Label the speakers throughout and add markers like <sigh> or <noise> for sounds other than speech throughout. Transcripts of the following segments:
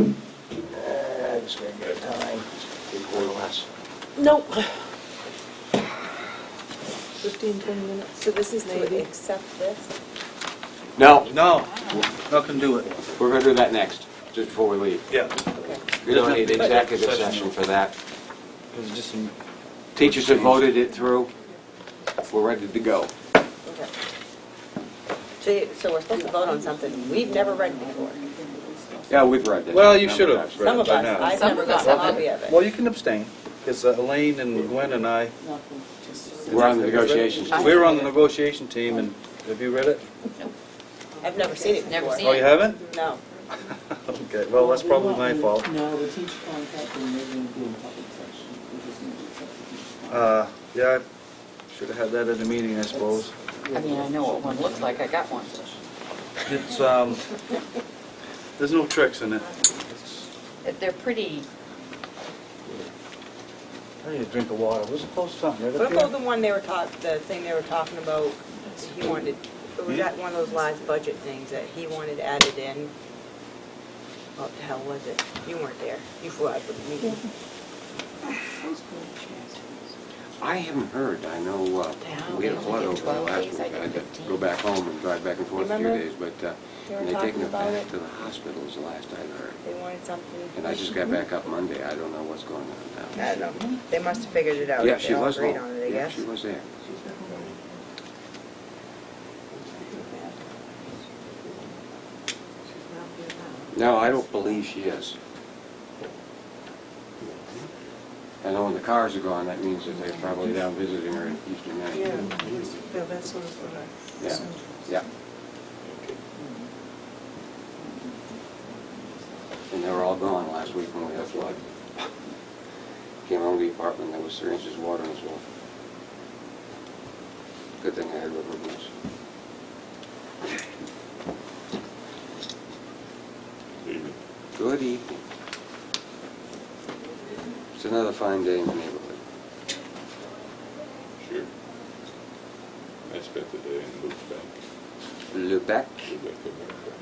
Speaker 1: Uh, just gonna get a time. Big boy less.
Speaker 2: Nope. 15, 20 minutes.
Speaker 3: So this is
Speaker 2: Maybe.
Speaker 3: to accept this?
Speaker 4: No,
Speaker 5: No, nothing to do it.
Speaker 4: we're gonna do that next, just before we leave.
Speaker 5: Yeah.
Speaker 3: Okay.
Speaker 4: We don't need executive session for that. Teachers have voted it through. We're ready to go.
Speaker 3: Okay. So, you- so we're supposed to vote on something we've never read before.
Speaker 4: Yeah, we've read that.
Speaker 5: Well, you should have.
Speaker 3: Some of us,
Speaker 5: Right, I know.
Speaker 3: I've
Speaker 2: Some
Speaker 3: never
Speaker 2: of us
Speaker 3: gotten a
Speaker 2: haven't.
Speaker 3: copy of it.
Speaker 5: Well, you can abstain, because Elaine and Gwen and I,
Speaker 4: We're on the negotiations. team.
Speaker 5: we were on the negotiation team, and have you read it?
Speaker 3: I've never seen it
Speaker 2: Never
Speaker 3: before.
Speaker 2: seen
Speaker 5: Oh, you haven't? <laughs>
Speaker 3: No.
Speaker 5: Okay, well, that's probably my fault.
Speaker 6: No, the teacher contract, and they're gonna do in public session, we just need to accept the teacher
Speaker 5: Uh, yeah, I should have had that at a meeting, I suppose.
Speaker 2: I mean, I know what one looks like, I got one.
Speaker 5: It's, um, there's no tricks in it.
Speaker 2: They're pretty,
Speaker 5: I need a drink of water. Was it close to something
Speaker 3: What about the one they were taught, the thing they were talking about, he wanted, it was that one of those last budget things that he wanted added in? What the hell was it? You weren't there. You flew out for the meeting.
Speaker 4: I haven't heard. I know, uh,
Speaker 2: Yeah,
Speaker 4: we had a
Speaker 2: we
Speaker 4: flood
Speaker 2: only
Speaker 4: over
Speaker 2: get
Speaker 4: there
Speaker 2: 12
Speaker 4: last
Speaker 2: days,
Speaker 4: week.
Speaker 2: I
Speaker 4: I
Speaker 2: get
Speaker 4: had to
Speaker 2: 15.
Speaker 4: go back home and drive back and forth a few
Speaker 3: Remember?
Speaker 4: days, but uh,
Speaker 3: They were
Speaker 4: and they taken
Speaker 3: talking
Speaker 4: it
Speaker 3: about
Speaker 4: back
Speaker 3: it.
Speaker 4: to the hospital is the last I heard.
Speaker 3: They wanted something.
Speaker 4: And I just
Speaker 3: Mm-hmm.
Speaker 4: got back up Monday. I don't know what's going on now.
Speaker 3: I don't know. They must have figured it out.
Speaker 4: Yeah,
Speaker 3: if
Speaker 4: she
Speaker 3: they all
Speaker 4: was
Speaker 3: agreed
Speaker 4: home.
Speaker 3: on it, I
Speaker 4: Yeah,
Speaker 3: guess.
Speaker 4: she was there. No, I don't believe she is. I know when the cars are gone, that means that they're probably down visiting her in Houston now. Yeah, that's what I... Yeah, yeah, and they were all gone last week when we had flood. Came home to the apartment, there was three inches of water in this wall. Good thing I had rubber boots. Good evening. It's another fine day in the neighborhood.
Speaker 7: Sure. I spent the day in Lubeck,
Speaker 4: Lubec,
Speaker 7: Lubeck, America.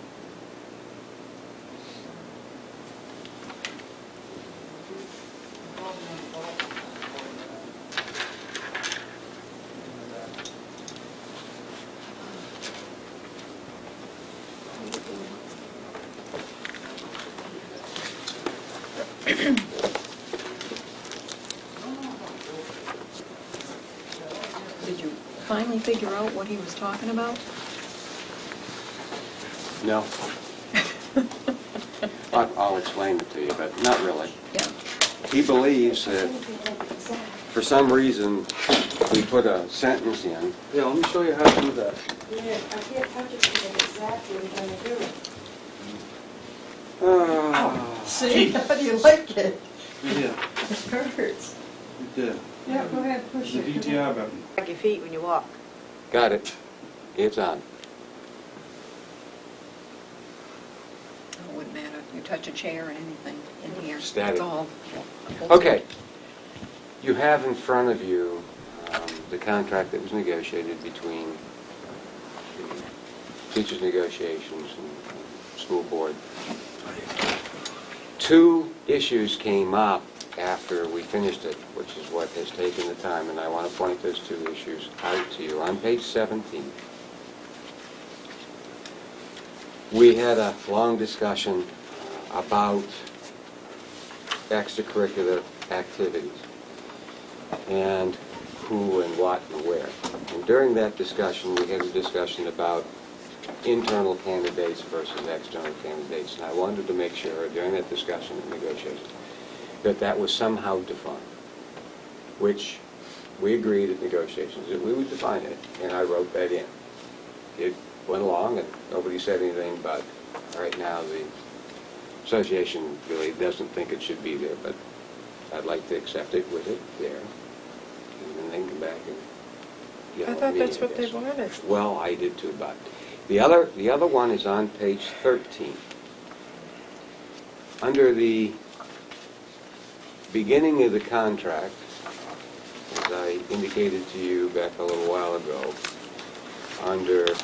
Speaker 2: did you finally figure out what he was talking about?
Speaker 4: no. I- I'll explain it to you, but not really.
Speaker 2: Yeah.
Speaker 4: He believes that for some reason, we put a sentence in,
Speaker 5: Yeah, let me show you how to do that.
Speaker 2: Oh.
Speaker 5: Ah,
Speaker 6: See, <laughs> how do you like it?
Speaker 5: yeah,
Speaker 6: It hurts.
Speaker 5: yeah.
Speaker 8: Yeah, go ahead, push it. Come on.
Speaker 5: button.
Speaker 3: Like your feet when you walk.
Speaker 4: got it, it's on.
Speaker 2: It wouldn't matter if you touch a chair or anything in here.
Speaker 4: Static.
Speaker 2: It's all.
Speaker 4: Okay. You have in front of you um, the contract that was negotiated between the teachers' negotiations and the school board. Two issues came up after we finished it, which is what has taken the time, and I want to point those two issues out to you. On page 17, we had a long discussion about extracurricular activities, and who and what and where. And during that discussion, we had a discussion about internal candidates versus external candidates, and I wanted to make sure during that discussion and negotiation that that was somehow defined, which we agreed at negotiations that we would define it, and I wrote that in. It went along, and nobody said anything, but right now, the association really doesn't think it should be there, but I'd like to accept it with it there, and then come back and get
Speaker 8: I
Speaker 4: what
Speaker 8: thought
Speaker 4: meaning
Speaker 8: that's what
Speaker 4: it is.
Speaker 8: they wanted.
Speaker 4: Well, I did too, but the other, the other one is on page 13. Under the beginning of the contract, as I indicated to you back a little while ago, under